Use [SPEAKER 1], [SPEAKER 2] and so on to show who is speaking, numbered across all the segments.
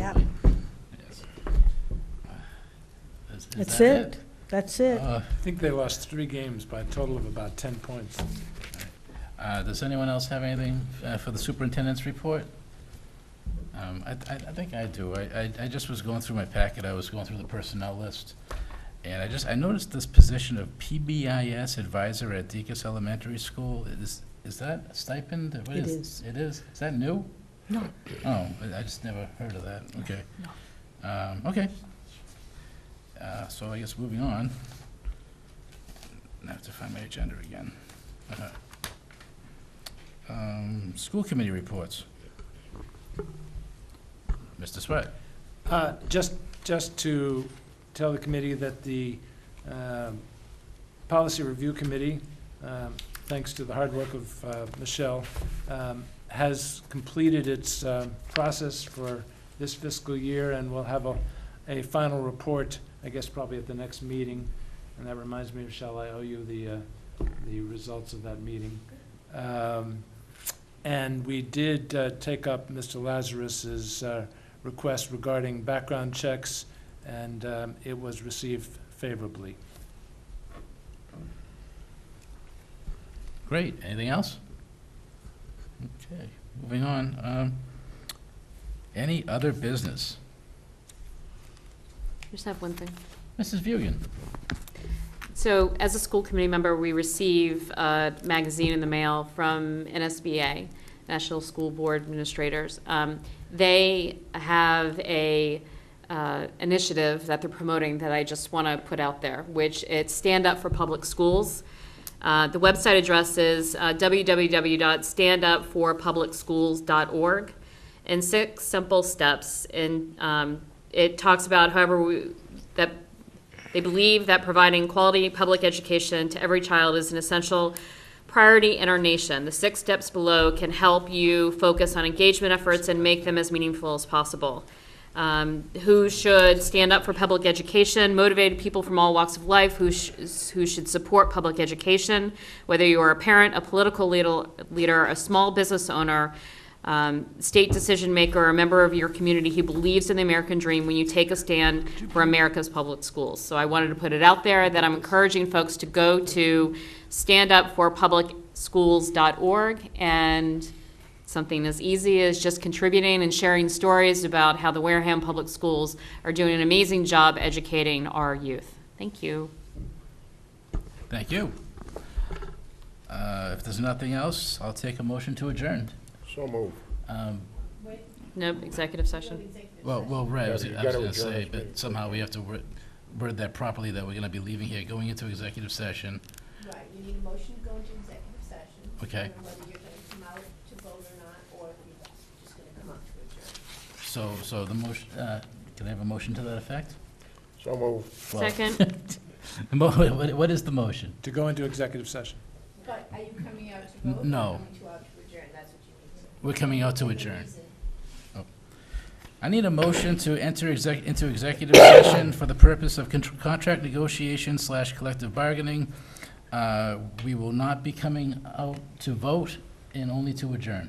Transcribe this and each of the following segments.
[SPEAKER 1] Uh,
[SPEAKER 2] Is
[SPEAKER 1] That's
[SPEAKER 2] that
[SPEAKER 1] it. That's it.
[SPEAKER 2] Uh, I think they lost three games by a total of about 10 points.
[SPEAKER 1] Uh, Does anyone else have anything uh, for the superintendent's report? Um, I I- I think I do. I I- I just was going through my packet, I was going through the personnel list, and I just, I noticed this position of PBIS advisor at Deacon's Elementary School. Is is that a stipend? What
[SPEAKER 3] It is.
[SPEAKER 1] It is? Is that new?
[SPEAKER 3] No.
[SPEAKER 1] Oh, I- I just never heard of that. Okay.
[SPEAKER 3] no.
[SPEAKER 1] Um, Okay. Uh, So I guess moving on. I have to find my agenda again. Uh-huh. Um, School committee reports. Mr. Swett?
[SPEAKER 2] Uh, Just, just to tell the committee that the um, Policy Review Committee, um, thanks to the hard work of uh, Michelle, um, has completed its um, process for this fiscal year, and will have a, a final report, I guess probably at the next meeting. And that reminds me, Michelle, I owe you the, uh, the results of that meeting. Um, And we did uh, take up Mr. Lazarus's uh, request regarding background checks, and um, it was received favorably.
[SPEAKER 1] Great. Anything else? Okay, moving on. Um, Any other business?
[SPEAKER 4] I Just have one thing.
[SPEAKER 1] Mrs. Bugan?
[SPEAKER 4] So as a school committee member, we receive a magazine in the mail from NSBA, National School Board Administrators. Um, They have a uh, initiative that they're promoting that I just want to put out there, which it's Stand Up for Public Schools. Uh, The website address is uh, www.standupforpublicschools.org and six simple steps. And um, it talks about however we, that they believe that providing quality public education to every child is an essential priority in our nation. The six steps below can help you focus on engagement efforts and make them as meaningful as possible. Um, who should stand up for public education, motivated people from all walks of life who, sh- who should support public education, whether you are a parent, a political leader, leader a small business owner, um, state decision maker, or a member of your community who believes in the American dream when you take a stand for America's public schools. So I wanted to put it out there that I'm encouraging folks to go to standupforpublicschools.org and something as easy as just contributing and sharing stories about how the Wareham Public Schools are doing an amazing job educating our youth. Thank you.
[SPEAKER 1] Thank you. Uh, If there's nothing else, I'll take a motion to adjourn.
[SPEAKER 5] So moved.
[SPEAKER 1] Um,
[SPEAKER 4] No executive session.
[SPEAKER 1] Well, well, right, I
[SPEAKER 5] Yeah,
[SPEAKER 1] was
[SPEAKER 5] you
[SPEAKER 1] I was
[SPEAKER 5] gotta
[SPEAKER 1] gonna
[SPEAKER 5] adjourn
[SPEAKER 1] say,
[SPEAKER 5] this meeting.
[SPEAKER 1] but somehow we have to word word that properly, that we're gonna be leaving here, going into executive session.
[SPEAKER 6] Right, you need a motion to go into executive session.
[SPEAKER 1] Okay.
[SPEAKER 6] And whether you're gonna come out to vote or not, or if you're just gonna come out to
[SPEAKER 1] So,
[SPEAKER 6] adjourn.
[SPEAKER 1] so the motion, uh, can I have a motion to that effect?
[SPEAKER 5] So moved.
[SPEAKER 1] Well-
[SPEAKER 4] Second.
[SPEAKER 1] The mo- What what is the motion?
[SPEAKER 2] To go into executive session.
[SPEAKER 6] But are you coming out to vote? or
[SPEAKER 1] No.
[SPEAKER 6] Coming to out to adjourn, that's what you need to.
[SPEAKER 1] We're coming out to
[SPEAKER 6] The
[SPEAKER 1] adjourn.
[SPEAKER 6] reason.
[SPEAKER 1] I need a motion to enter exec, into executive session for the purpose of contr- contract negotiation slash collective bargaining. Uh, We will not be coming out to vote and only to adjourn.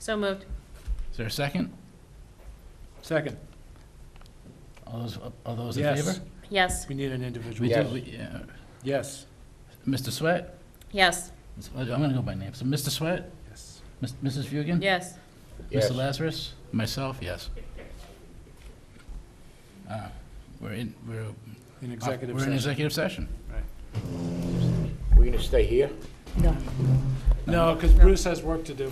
[SPEAKER 4] So moved.
[SPEAKER 1] Is there a second?
[SPEAKER 2] Second,
[SPEAKER 1] All those, all those in
[SPEAKER 2] Yes.
[SPEAKER 1] favor?
[SPEAKER 4] Yes.
[SPEAKER 2] we need an
[SPEAKER 1] We
[SPEAKER 2] individual.
[SPEAKER 1] do-
[SPEAKER 5] Yes.
[SPEAKER 1] we- yeah.
[SPEAKER 2] Yes,
[SPEAKER 1] Mr. Sweat?
[SPEAKER 4] Yes.
[SPEAKER 1] I'm going to go by name. So Mr. Sweat,
[SPEAKER 2] yes.
[SPEAKER 1] Mis- Mrs. Fugan?
[SPEAKER 4] Yes.
[SPEAKER 5] Yes.
[SPEAKER 1] Mr. Lazarus, myself, yes. Uh, We're in, we're,
[SPEAKER 2] In executive
[SPEAKER 1] we're in
[SPEAKER 2] session.
[SPEAKER 1] executive session.
[SPEAKER 5] We're gonna stay here?
[SPEAKER 2] No, because Bruce has work to do.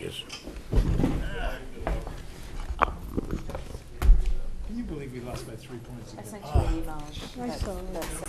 [SPEAKER 5] Yes.
[SPEAKER 2] Can you believe we lost by three points again?
[SPEAKER 1] Oh.
[SPEAKER 3] I saw it.